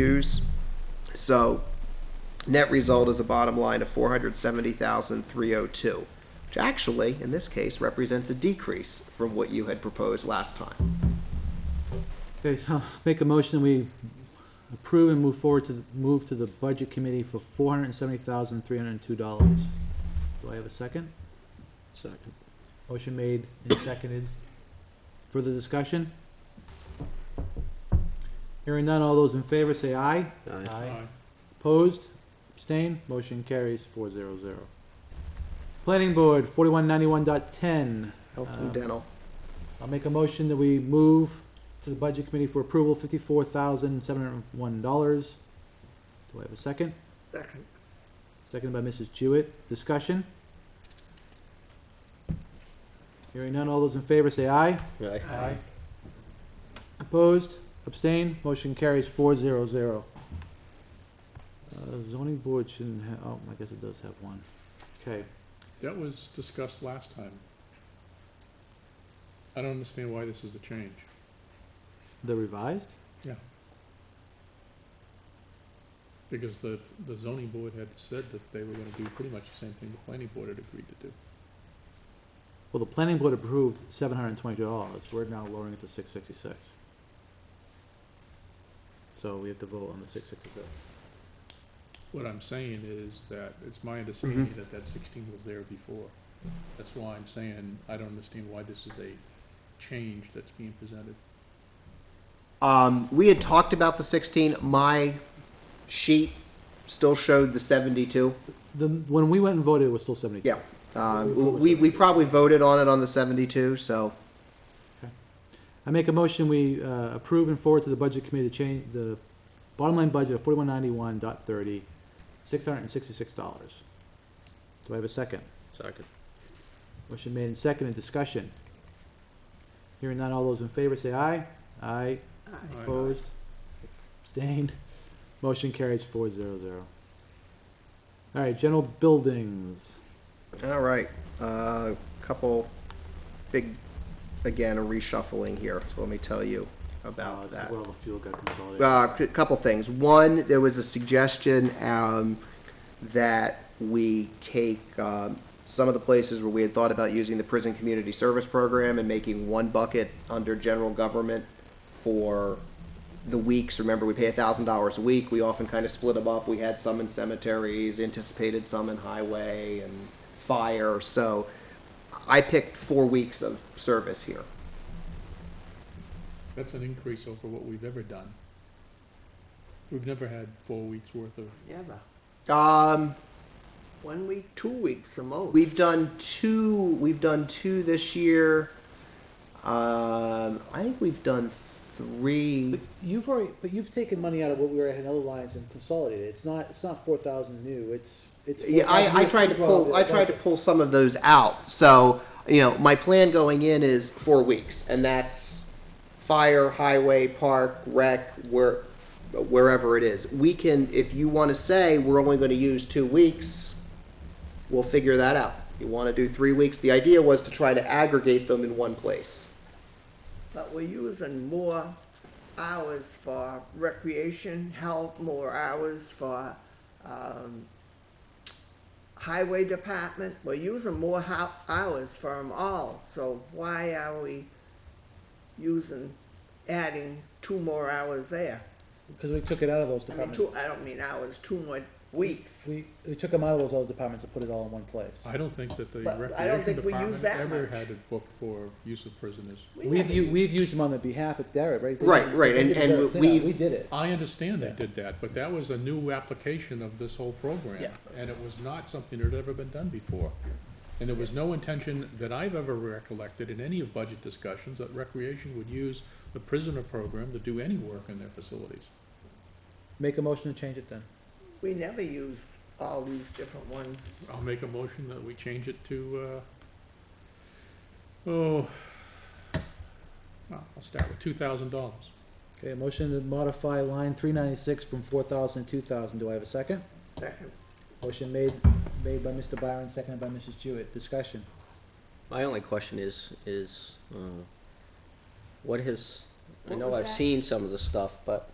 use. So net result is a bottom line of four hundred seventy thousand three oh two, which actually, in this case, represents a decrease from what you had proposed last time. Okay, so make a motion, we approve and move forward to, the- move to the Budget Committee for four hundred and seventy thousand, three hundred and two dollars. Do I have a second? Second. Motion made and seconded. Further discussion? Hearing none, all those in favor say aye. Aye. Opposed, abstained, motion carries four zero zero. Planning Board, forty-one ninety-one dot ten. Health and Um, dental. I'll make a motion that we move to the Budget Committee for approval, fifty-four thousand, seven hundred and one dollars. Do I have a second? Second. Seconded by Mrs. Jewett. Discussion? Hearing none. All those in favor say aye. Aye. Opposed? Abstained? Motion carries four zero zero. Uh, zoning board shouldn't have, oh, I guess it does have one. Okay. That was discussed last time. I don't understand why this is a change. The revised? Yeah. Because the, the zoning board had said that they were gonna do pretty much the same thing the planning board had agreed to do. Well, the planning board approved seven hundred and twenty-two dollars, we're now lowering it to six sixty-six. So we have to vote on the six sixty-six. What I'm saying is that it's my understanding that that sixteen was there before. That's why I'm saying I don't understand why this is a change that's being presented. Um, we had talked about the sixteen. My sheet still showed the seventy-two. The, when we went and voted, it was still seventy-two. Yeah. Um, we, we probably voted on it on the seventy-two, so I make a motion, we, uh, approve and forward to the budget committee to change the bottom line budget of forty-one ninety-one dot thirty, six hundred and sixty-six dollars. Do I have a second? Second. Motion made and seconded, discussion. Hearing none, all those in favor say aye. Aye. Opposed? Abstained? Motion carries four zero zero. All right, general buildings. All right, uh, couple big, again, a reshuffling here, so let me tell you Uh, about this is that. where all the fuel got consolidated. Uh, c- couple things. One, there was a suggestion, um, that we take, um, some of the places where we had thought about using the prison community service program and making one bucket under general government for the weeks. Remember, we pay a thousand dollars a week. We often kind of split them up. We had some in cemeteries, anticipated some in highway and fire. So I picked four weeks of service here. That's an increase over what we've ever done. We've never had four weeks' worth of Never. Um, One week, two weeks the most. We've done two. We've done two this year. Um, I think we've done three. But you've already, but you've taken money out of what we were at in other lines and consolidated. It's not, it's not four thousand new, it's, it's. Yeah, I, I 4,000 tried to overall pull. I the tried to budget. pull some of those out. So you know, my plan going in is four weeks, and that's fire, highway, park, rec, where, wherever it is. We can, if you want to say we're only going to use two weeks, we'll figure that out. You want to do three weeks? The idea was to try to aggregate them in one place. But we're using more hours for recreation, help, more hours for, um, highway department. We're using more ho- hours for them all, so why are we using, adding two more hours there? Cause we took it out of those I mean, departments. two, I don't mean hours, two more weeks. We, we took them out of those other departments and put it all in one place. I don't think that the But I don't recreation think we department use that ever much. had it booked for use of prisoners. We We've, haven't u- used- we've used them on the behalf of Derek, right? They Right, did- right, they and- did the and Derek we- cleanup. We we've- did it. I understand they Yeah. did that, but that was a new application of this whole program. Yeah. And it was not something that had ever been done before. And there was no intention that I've ever recollected in any of budget discussions that recreation would use the prisoner program to do any work in their facilities. Make a motion to change it then. We never used all these different ones. I'll make a motion that we change it to, uh, oh, well, I'll start with two thousand dollars. Okay, a motion to modify line three ninety-six from four thousand to two thousand. Do I have a second? Second, Motion made, made by Mr. Byron, seconded by Mrs. Jewett. Discussion. My only question is, is, uh, what has, I What know was I've that? seen some of the stuff, but